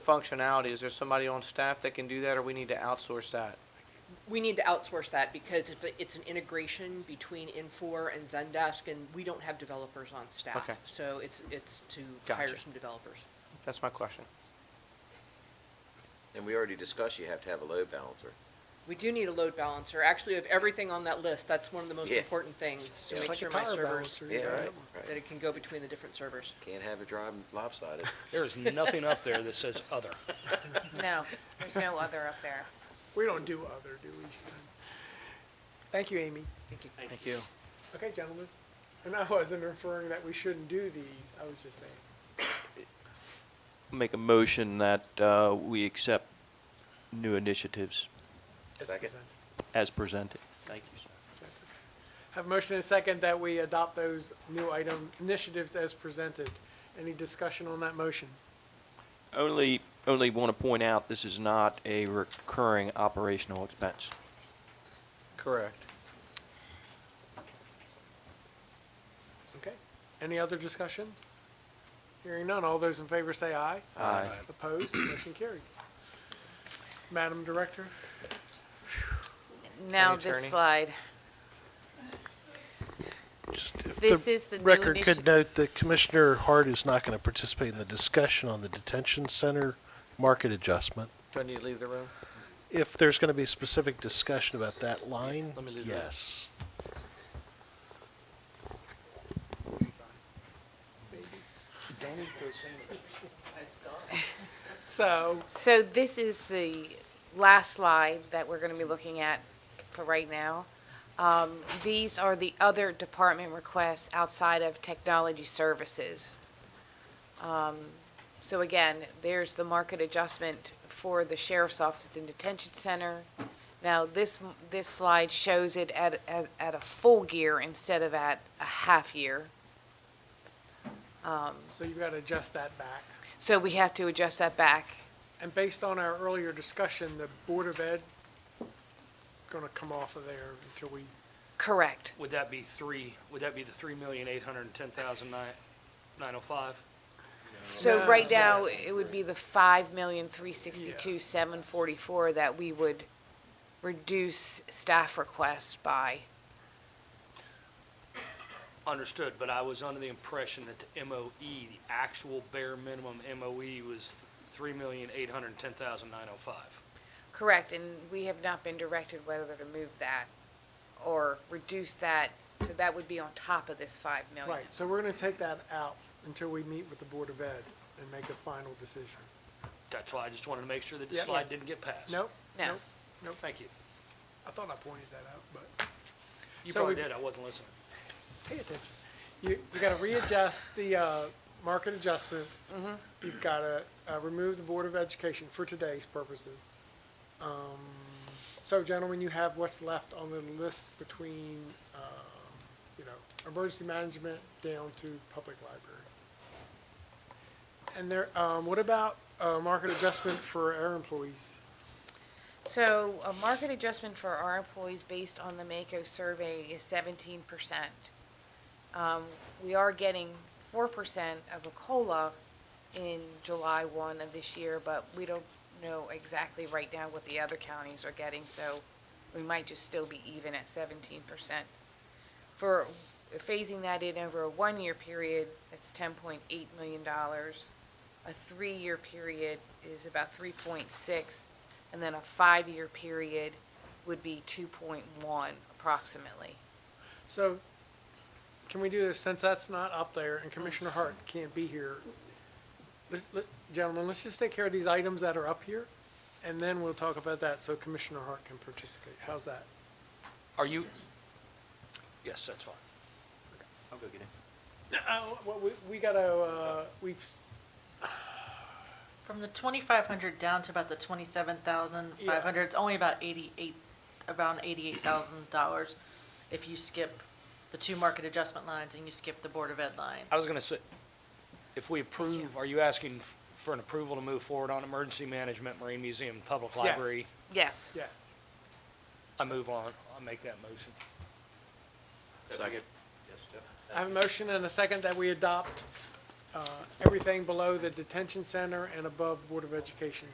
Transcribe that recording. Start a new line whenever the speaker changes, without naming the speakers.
functionality, is there somebody on staff that can do that, or we need to outsource that?
We need to outsource that because it's, a- it's an integration between Infor and Zendesk, and we don't have developers on staff.
Okay.
So it's, it's to hire
Gotcha.
some developers.
That's my question.
And we already discussed you have to have a load balancer.
We do need a load balancer. Actually, of everything on that list, that's one of the most
Yeah.
important things, to
Just
make
like a
sure my
tire
servers,
balancer.
Yeah,
Yeah.
right,
that
right.
it can go between the different servers.
Can't have it driving lopsided.
There is nothing up there that says other.
No, there's no other up there.
We don't do other, do we? Thank you, Amy.
Thank you.
Thank you.
Okay, gentlemen. And I wasn't referring that we shouldn't do these, I was just saying.
Make a motion that uh, we accept new initiatives
as
Second.
presented.
as presented. Thank you, sir.
That's okay. Have a motion and a second that we adopt those new item initiatives as presented. Any discussion on that motion?
Only, only want to point out, this is not a recurring operational expense.
Correct.
Okay. Any other discussion? Hearing none, all those in favor say aye.
Aye.
Opposed, motion carries. Madam Director?
Now
Attorney.
this slide.
Just if
This
the
is the new
record
initi-
could note that Commissioner Hart is not going to participate in the discussion on the detention center market adjustment.
Do I need to leave the room?
If there's going to be a specific discussion about that line,
Let me leave that.
yes.
So,
So this is the last slide that we're going to be looking at for right now. Um, These are the other department requests outside of technology services. Um, So again, there's the market adjustment for the sheriff's office and detention center. Now, this, this slide shows it at, at at a full year instead of at a half year.
so you've got to adjust that back.
So we have to adjust that back.
And based on our earlier discussion, the Board of Ed is going to come off of there until we,
Correct.
Would that be three, would that be the three million, eight hundred and ten thousand, nine, nine oh five?
So
No.
right now, it would be the five million, three sixty-two, seven forty-four that we would reduce staff requests by.
Understood, but I was under the impression that the MOE, the actual bare minimum MOE was three million, eight hundred and ten thousand, nine oh five.
Correct, and we have not been directed whether to move that or reduce that, so that would be on top of this five million.
right, so we're going to take that out until we meet with the Board of Ed and make a final decision.
That's why I just wanted to make sure that the
Yeah.
slide didn't get passed.
Nope?
No.
nope, Nope.
Thank you.
I thought I pointed that out, but
You
So
probably
we-
did, I wasn't listening.
pay attention. You, you got to readjust the uh, market adjustments. You've got to remove the Board of Education for today's purposes. Um, So gentlemen, you have what's left on the list between, um, you know, emergency management down to public library. And there, um, what about uh, market adjustment for our employees?
So a market adjustment for our employees based on the Mako survey is seventeen percent. Um, we are getting four percent of a COLA in July one of this year, but we don't know exactly right now what the other counties are getting, so we might just still be even at seventeen percent. For phasing that in over a one-year period, that's ten point eight million dollars. A three-year period is about three point six, and then a five-year period would be two point one approximately.
So, can we do this, since that's not up there and Commissioner Hart can't be here? let- let- Gentlemen, let's just take care of these items that are up here, and then we'll talk about that, so Commissioner Hart can participate. How's that?
Are you? Yes, that's fine.
I'll go get him.
Uh, well, we, we gotta, uh, we've, s-
From the twenty-five hundred down to about the twenty-seven thousand five hundred, it's only about eighty-eight, about eighty-eight thousand dollars if you skip the two market adjustment lines and you skip the Board of Ed line.
I was gonna say, if we approve, are you asking f- for an approval to move forward on emergency management, marine museum, public library?
Yes.
yes.
I move on, I make that motion.
Second.
I have a motion and a second that we adopt uh, everything below the detention center and above Board of Education